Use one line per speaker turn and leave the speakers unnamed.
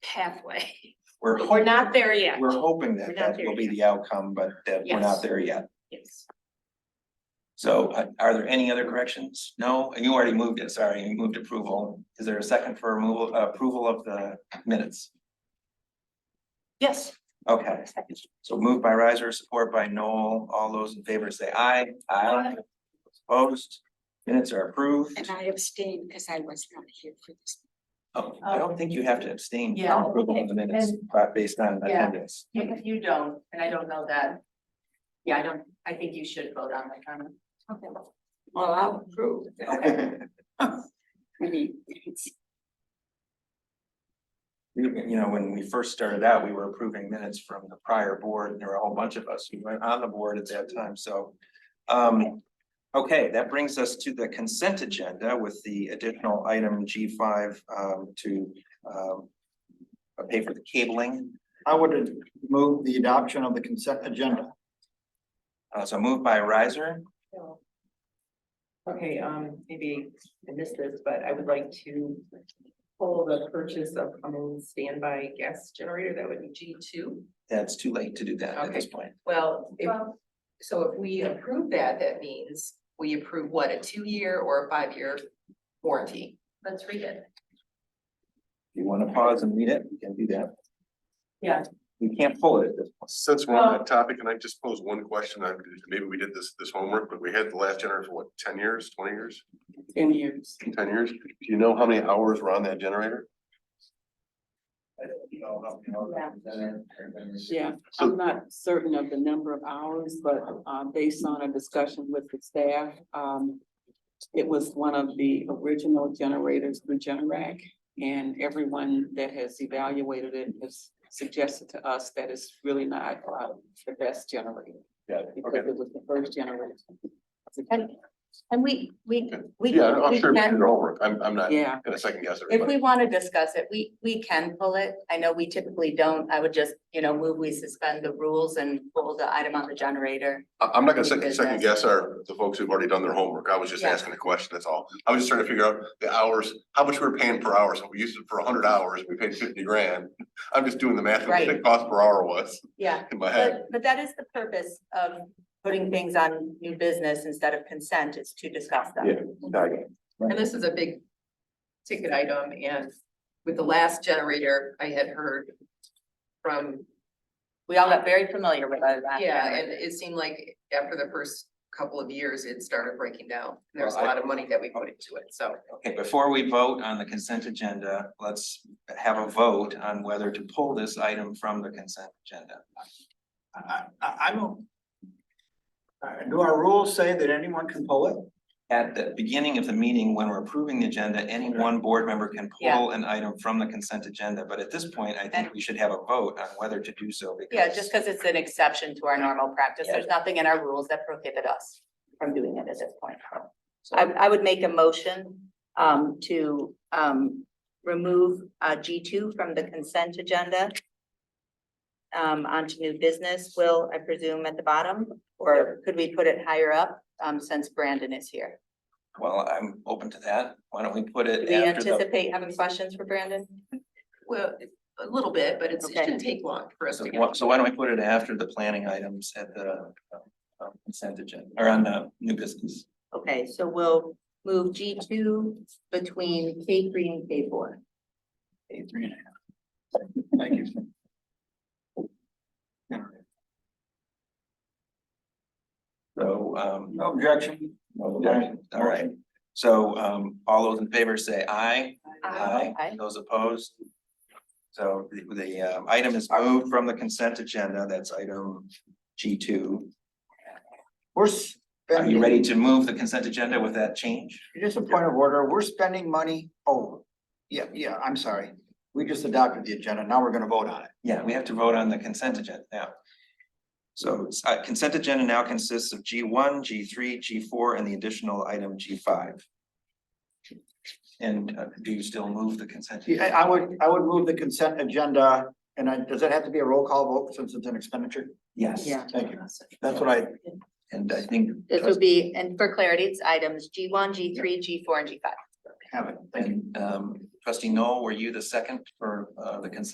halfway.
We're,
We're not there yet.
we're hoping
We're
that
not
that
there
will be
yet.
the outcome, but that we're
Yes.
not there yet.
Yes.
So uh, are there any other corrections? No, you already moved it, sorry, you moved approval. Is there a second for removal, uh, approval of the minutes?
Yes.
Okay, so moved by riser, support by Noel. All those in favor say aye. Aye. Opposed? Minutes are approved.
And I abstain because I was not here for this.
Oh, I don't think you have to abstain
Yeah.
from approval of the minutes but based on
Yeah.
attendance.
If you don't, and I don't know that. Yeah, I don't, I think you should vote on that, Carmen.
Well, I'll approve. I mean, it's,
You you know, when we first started out, we were approving minutes from the prior board, and there were a whole bunch of us who went on the board at that time, so. Um, okay, that brings us to the consent agenda with the additional item G five um to um. uh, Pay for the cabling,
I would move the adoption of the consent agenda.
uh, so moved by riser,
Okay, um, maybe I missed this, but I would like to pull the purchase of Cummins standby gas generator, that would be G two.
that's too late to do that at this point.
Well, if, so if we approve that, that means we approve what, a two-year or a five-year warranty? Let's read it.
If you wanna pause and read it, you can do that.
Yeah.
We can't pull it at this point.
Since we're on
Well-
that topic, and I just pose one question, I, maybe we did this, this homework, but we had the last generator for what, ten years, twenty years,
in years.
ten years? Do you know how many hours were on that generator?
Yeah,
So-
I'm not certain of the number of hours, but uh based on a discussion with the staff, um. It was one of the original generators through Generac, and everyone that has evaluated it has suggested to us that it's really not uh the best generator.
Yeah,
Because
okay.
it was the first generator.
And we, we, we.
Yeah, I'm
we
sure we did
can-
your homework. I'm, I'm not
Yeah,
gonna second guess
If
everybody.
we want to discuss it, we, we can pull it. I know we typically don't. I would just, you know, move, we suspend the rules and pull the item on the generator.
I, I'm not gonna
we
second,
did
second
this.
guess our, the folks who've already done their homework. I was just
Yeah.
asking a question, that's all. I was just trying to figure out the hours, how much we were paying per hour. So we used it for hundred hours, we paid fifty grand. I'm just doing the math of what the
Right.
cost per hour was
Yeah,
in my head.
but, but that is the purpose of putting things on new business instead of consent is to discuss them.
Yeah.
And this is a big ticket item and with the last generator, I had heard from
We all got very familiar with that.
Yeah, and it seemed like after the first couple of years, it started breaking down. There was a
Well, I-
lot of money that we put into it, so.
Okay, before we vote on the consent agenda, let's have a vote on whether to pull this item from the consent agenda.
I, I, I'm. a- Uh, Do our rules say that anyone can pull it?
At the beginning of the meeting, when we're approving the agenda, any one board member can pull an item from the consent agenda, but at this point, I think we should have a vote on whether to do so because.
Yeah, just because it's an exception to our normal practice. There's nothing in our rules that prohibit us from doing it at this point. I, I would make a motion, um, to, um, remove, uh, G two from the consent agenda. Um, onto new business, Will, I presume, at the bottom, or could we put it higher up, um, since Brandon is here?
Well, I'm open to that. Why don't we put
Do
it
we
after the,
anticipate having questions for Brandon?
Well, a little bit, but it's, it
Okay.
shouldn't take long for us
so
to
why-
get.
so why don't we put it after the planning items at the uh, consent agenda or on the new business?
Okay, so we'll move G two between K three and K four.
Three and a half. Thank you.
So um,
No objection.
no objection. all right. So um, all those in favor say aye.
Aye.
Those opposed? So the, the um, item is moved from the consent agenda, that's item G two.
We're
Are
spending.
you ready to move the consent agenda with that change?
Just a point of order, we're spending money over. Yeah, yeah, I'm sorry. We just adopted the agenda, now we're gonna vote on it.
Yeah, we have to vote on the consent agenda now. So uh, consent agenda now consists of G one, G three, G four, and the additional item G five. And uh, do you still move the consent?
Yeah, I I would, I would move the consent agenda, and I, does that have to be a roll call vote since it's an expenditure?
Yes.
yeah.
Thank you. That's what I,
And I think.
This would be, and for clarity, it's items G one, G three, G four, and G five.
have it. thank you.
And um, trustee Noel, were you the second for uh, the consent